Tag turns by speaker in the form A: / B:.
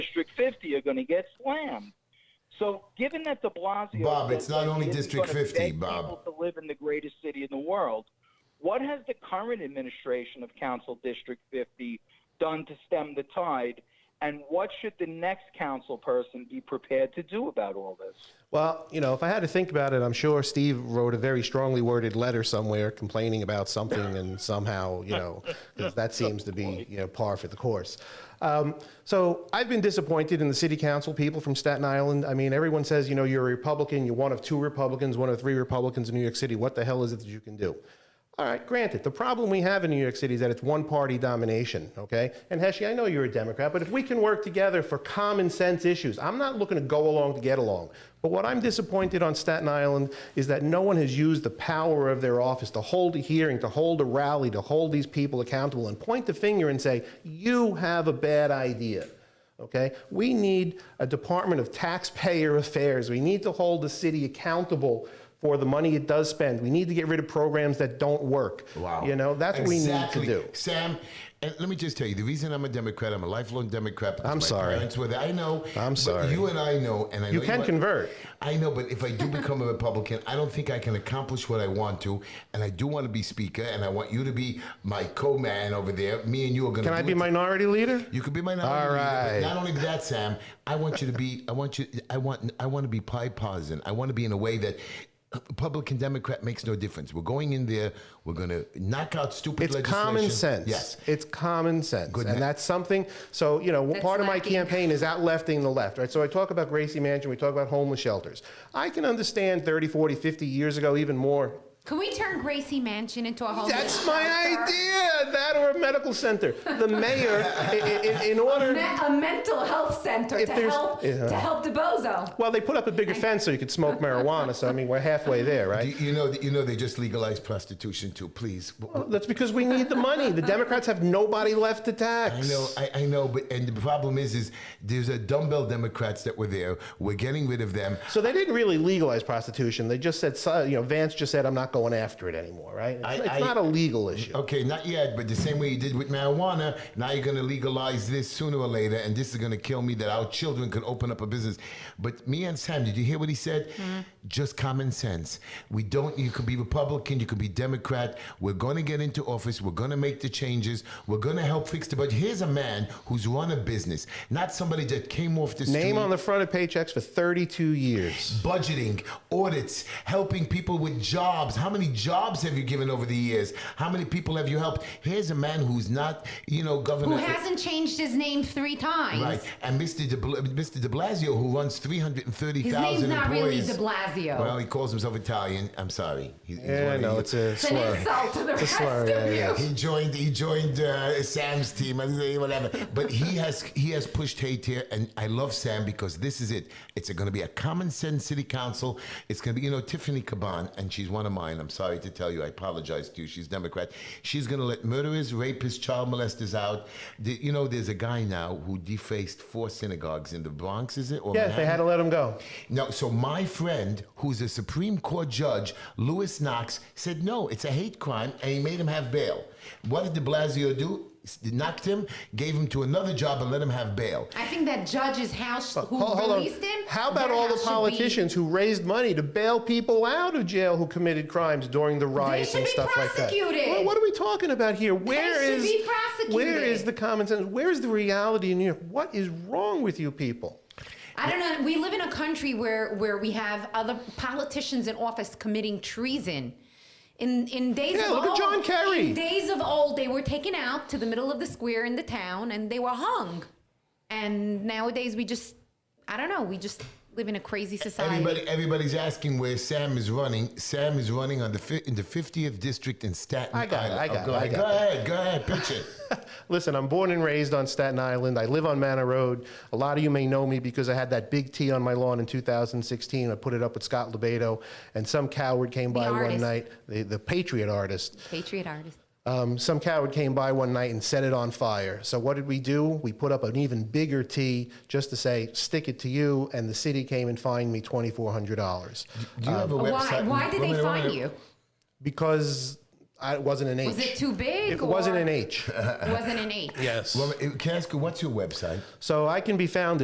A: District 50 are going to get slammed. So, given that De Blasio,
B: Bob,
A: says
B: it's not
A: that
B: only
A: he isn't
B: District
A: gonna
B: 50,
A: beg
B: Bob.
A: people to live in the greatest city in the world, what has the current administration of Council District 50 done to stem the tide? And what should the next council person be prepared to do about all this?
C: Well, you know, if I had to think about it, I'm sure Steve wrote a very strongly worded letter somewhere complaining about something, and somehow, you know, 'cause that seems to be you know par for the course. Um, so I've been disappointed in the city council people from Staten Island. I mean, everyone says, you know, you're a Republican, you're one of two Republicans, one of three Republicans in New York City. What the hell is it that you can do? All right, granted, the problem we have in New York City is that it's one party domination, okay? And Heshie, I know you're a Democrat, but if we can work together for common sense issues, I'm not looking to go along to get along. But what I'm disappointed on Staten Island is that no one has used the power of their office to hold a hearing, to hold a rally, to hold these people accountable and point the finger and say, you have a bad idea. Okay? We need a Department of Taxpayer Affairs. We need to hold the city accountable for the money it does spend. We need to get rid of programs that don't work.
B: Wow.
C: You know, that's
B: Exactly.
C: what we need to do.
B: Sam, and let me just tell you the reason I'm a Democrat, I'm a lifelong Democrat. because
C: I'm
B: my
C: sorry.
B: Parents were there. I know.
C: I'm
B: but
C: sorry.
B: You and I know, and I
C: You
B: know
C: can
B: are-
C: convert.
B: I know, but if I do become a Republican, I don't think I can accomplish what I want to. And I do want to be Speaker, and I want you to be my co-man over there. Me and you are going to.
C: Can I
B: do
C: be
B: it
C: minority leader?
B: You could be my nominee.
C: All
B: but
C: right.
B: Not only that, Sam. I want you to be. I want you. I want. I want to be pie partisan. I want to be in a way that. Republican Democrat makes no difference. We're going in there. We're going to knock out stupid
C: It's
B: legislation.
C: common sense.
B: Yes.
C: It's common sense.
B: Good
C: and
B: night.
C: that's something, so, you know,
D: That's
C: part of my
D: lacking.
C: campaign is outlefting the left, right? So I talk about Gracie Mansion, we talk about homeless shelters. I can understand 30, 40, 50 years ago, even more,
D: Can we turn Gracie Mansion into a home?
C: That's my idea. That or a medical center. The mayor, i- i- in, in order.
E: Me- a mental health center
C: If
E: to
C: there's-
E: help
C: yeah.
E: to help DeBozo.
C: Well, they put up a bigger fence so you could smoke marijuana. So I mean, we're halfway there,
B: Do
C: right?
B: You you know. You know. They just legalized prostitution too. Please.
C: That's because we need the money. The Democrats have nobody left to
B: I
C: tax.
B: know, I, I know, but and the problem is, is there's a dumbbell Democrats that were there. We're getting rid of them.
C: So they didn't really legalize prostitution. They just said, so- you know, Vance just said, I'm not going after it anymore, right? It's,
B: I-
C: it's
B: I-
C: not a legal issue.
B: Okay, not yet, but the same way you did with marijuana, now you're going to legalize this sooner or later, and this is going to kill me that our children could open up a business. But me and Sam, did you hear what he said? Just common sense. We don't, you could be Republican, you could be Democrat. We're going to get into office, we're going to make the changes, we're going to help fix the budget. Here's a man who's run a business, not somebody that came off the street
C: Name on the front of paychecks for 32 years.
B: budgeting, audits, helping people with jobs. How many jobs have you given over the years? How many people have you helped? Here's a man who's not, you know,
D: Who
B: governor.
D: hasn't changed his name three times?
B: Right, and Mr. De, Bla- Mr. De Blasio, who runs three hundred and thirty
D: His
B: thousand
D: name's not really
B: employees.
D: De Blasio.
B: Well, he calls himself Italian. I'm sorry. He, he's one
C: Yeah,
B: of
C: no,
B: the-
C: it's a
E: It's an
C: slur.
E: insult to the
C: It's a
E: rest
C: slur,
E: of
C: yeah,
E: you.
C: yeah.
B: He joined. He joined uh, Sam's team. I say whatever. But he has he has pushed hate here, and I love Sam because this is it. It's going to be a common sense city council. It's going to be you know Tiffany Caban, and she's one of mine. I'm sorry to tell you. I apologize to you. She's Democrat. She's going to let murderers, rapists, child molesters out. The- you know, there's a guy now who defaced four synagogues in the Bronx. Is it? Or
C: Yes, they
B: Manhattan?
C: had to let him go.
B: No, so my friend, who's a Supreme Court judge, Lewis Knox, said no, it's a hate crime, and he made him have bail. What did De Blasio do? S- Knocked him, gave him to another job, and let him have bail.
D: I think that judge's house who
C: Hold- Uh, hold on.
D: released him.
C: How about
D: their
C: all the
D: house should be-
C: politicians who raised money to bail people out of jail who committed crimes during the riots
D: should
C: and
D: be
C: stuff like that?
D: prosecuted.
C: Well, what are we talking about here? Where
D: should
C: is
D: be
C: where
D: prosecuted.
C: is the common sense? Where is the reality in New York? What is wrong with you people?
D: I don't know. We live in a country where where we have other politicians in office committing treason. In in days
C: Yeah,
D: of
C: look at
D: old,
C: John Kerry.
D: In days of old, they were taken out to the middle of the square in the town and they were hung. And nowadays, we just I don't know. We just live in a crazy society.
B: Everybody, everybody's asking where Sam is running. Sam is running on the fi- in the 50th district in Staten
C: I got it,
B: Island.
C: I got
B: go
C: it, I
B: ahead,
C: got
B: go ahead, go ahead, pitch it.
C: Listen, I'm born and raised on Staten Island. I live on Manor Road. A lot of you may know me because I had that big T on my lawn in 2016. I put it up with Scott Lebedo, and some coward came by one
D: artist.
C: night, the, the Patriot artist,
D: Patriot artist.
C: Um, some coward came by one night and set it on fire. So what did we do? We put up an even bigger T just to say, stick it to you, and the city came and fined me $2,400.
B: Do you have a
D: Why?
C: Uh,
B: website?
D: Why did
B: Wait a minute,
D: they
B: wait a
D: find
B: minute.
D: you?
C: Because I, it wasn't an H.
D: Was it too big?
C: It wasn't
D: or-
C: an H.
D: It wasn't an H.
C: yes.
B: uh, Well, can I ask you, what's your website?
C: So I can be found